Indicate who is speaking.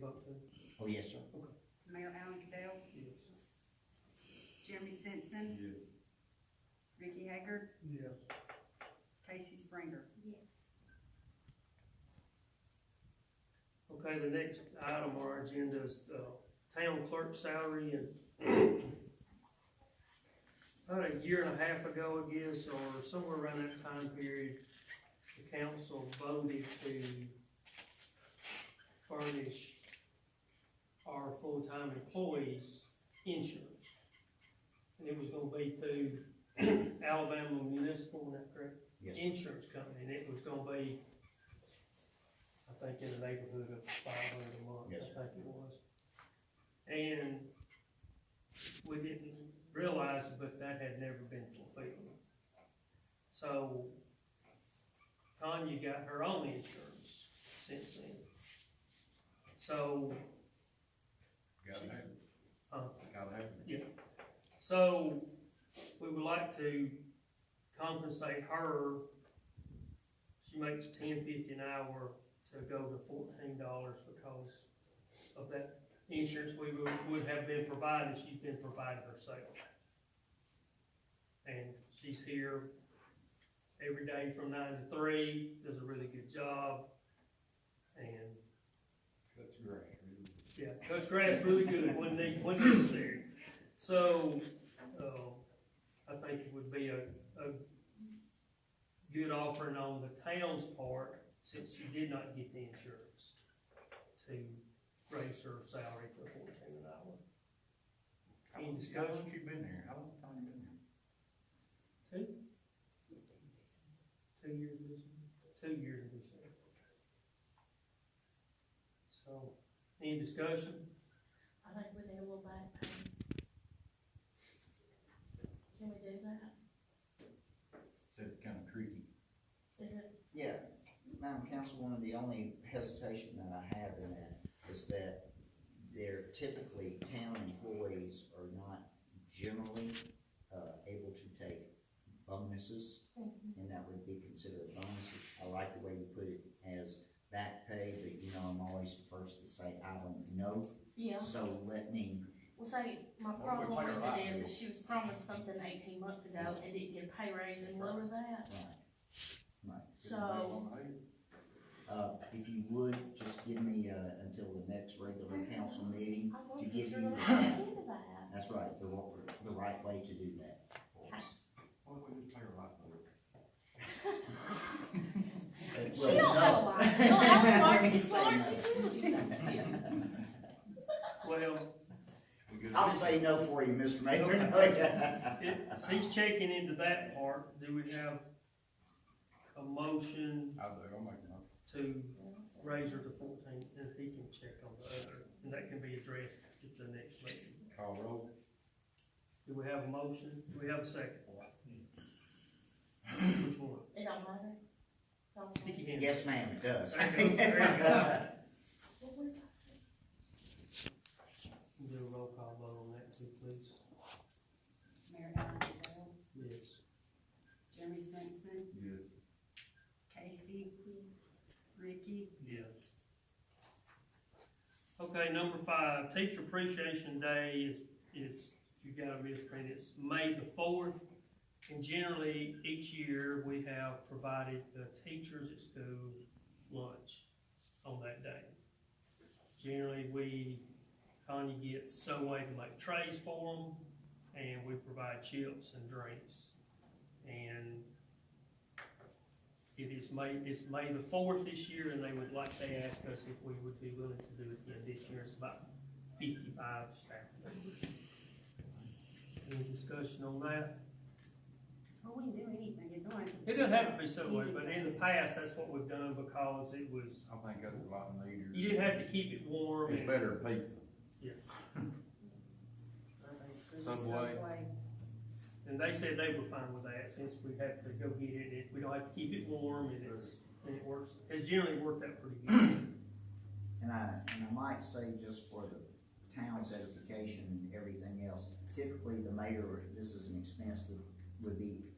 Speaker 1: vote too?
Speaker 2: Oh, yes, sir.
Speaker 3: Mayor Alan Cadell,
Speaker 1: Yes.
Speaker 3: Jeremy Simpson,
Speaker 4: Yes.
Speaker 3: Ricky Hager,
Speaker 1: Yes.
Speaker 3: Casey Springer.
Speaker 5: yes,
Speaker 1: Okay, the next item on our agenda is, uh, town clerk salary and about a year and a half ago, I guess, or somewhere around that time period, the council voted to furnish our full-time employees insurance. And it was gonna be through Alabama Municipal, is that correct?
Speaker 2: Yes, sir.
Speaker 1: insurance company, and it was gonna be, I think in the neighborhood of five hundred a month, I
Speaker 2: Yes,
Speaker 1: think it was. And we didn't realize, but that had never been fulfilled. So Tanya got her own insurance since then. So,
Speaker 4: Gotta have it.
Speaker 1: uh,
Speaker 4: Gotta have it.
Speaker 1: So, we would like to compensate her, she makes ten fifty an hour to go to fourteen dollars because of that insurance we would, would have been provided, she's been provided herself. And she's here every day from nine to three, does a really good job, and
Speaker 4: Cuts grass, really.
Speaker 1: yeah, cuts grass really good when they, when necessary. So, uh, I think it would be a, a good offering on the town's part, since she did not get the insurance, to raise her salary to fourteen an hour.
Speaker 4: How long, how long you been there? How long time you been there?
Speaker 1: Two years, this two years this year. So, any discussion?
Speaker 5: I think we need a little back pay. um, Can we do that?
Speaker 4: Said it's kinda tricky.
Speaker 5: Is it,
Speaker 2: Yeah, Madam Councilwoman, the only hesitation that I have in that is that they're typically, town employees are not generally, uh, able to take bonuses, and that would be considered a bonus. I like the way you put it as back pay, but you know, I'm always the first to say, I don't know,
Speaker 5: yeah,
Speaker 2: so let me,
Speaker 5: well, say, my
Speaker 4: Well, we pay her
Speaker 5: problem with
Speaker 4: right.
Speaker 5: it is, that she was promised something eighteen months ago and didn't get a pay raise and lower that,
Speaker 2: right, right.
Speaker 4: Get a
Speaker 5: so,
Speaker 4: bag on the head.
Speaker 2: Uh, if you would, just give me, uh, until the next regular
Speaker 5: Mm-hmm.
Speaker 2: council meeting.
Speaker 5: I
Speaker 2: to
Speaker 5: wonder
Speaker 2: give
Speaker 5: if you're
Speaker 2: you-
Speaker 5: gonna look into that.
Speaker 2: That's right, the, wa- the right way to do that for us.
Speaker 4: Why don't we just pay her right for it?
Speaker 2: Uh,
Speaker 5: She
Speaker 2: well,
Speaker 5: don't have a
Speaker 2: no.
Speaker 5: lot, no, I
Speaker 2: Let me
Speaker 5: don't, she's
Speaker 2: say
Speaker 5: large,
Speaker 2: no.
Speaker 5: she will do something.
Speaker 1: Well,
Speaker 4: We good?
Speaker 2: I'll say no for you, Mr. Mayor.
Speaker 1: It, he's checking into that part, do we have a motion
Speaker 4: I'll do, I'll make one.
Speaker 1: to raise her to fourteen, and he can check on the other, and that can be addressed at the next meeting.
Speaker 4: Call roll.
Speaker 1: Do we have a motion, do we have a second? Which one?
Speaker 5: It don't matter. It's all
Speaker 1: Stick
Speaker 5: fine.
Speaker 1: your hand.
Speaker 2: Yes, ma'am, it does.
Speaker 1: There you go, there
Speaker 5: Well, what about you?
Speaker 1: Do a roll call vote on that too, please.
Speaker 3: Mayor Alan Cadell,
Speaker 1: Yes.
Speaker 3: Jeremy Simpson,
Speaker 4: Yes.
Speaker 3: Casey, Ricky,
Speaker 1: Yes. Okay, number five, Teacher Appreciation Day is, is, you gotta misprint, it's May the fourth. And generally, each year, we have provided the teachers at school lunch on that day. Generally, we, Tanya gets some way to make trays for them, and we provide chips and drinks. And it is May, it's May the fourth this year, and they would like, they ask us if we would be willing to do it again this year. It's about fifty-five staff members. Any discussion on that?
Speaker 3: oh, we can do anything, it don't have to.
Speaker 1: It doesn't have to be so way, but in the past, that's what we've done because it was,
Speaker 4: I think that's a lot neater.
Speaker 1: you did have to keep it warm
Speaker 4: It's
Speaker 1: and.
Speaker 4: better than pizza. Subway.
Speaker 1: And they said they were fine with that since we have to go get it, it, we don't have to keep it warm and it's, and it works, it's generally worked out pretty good.
Speaker 2: And I, and I might say just for the town's edification and everything else, typically the mayor, this is an expense that would be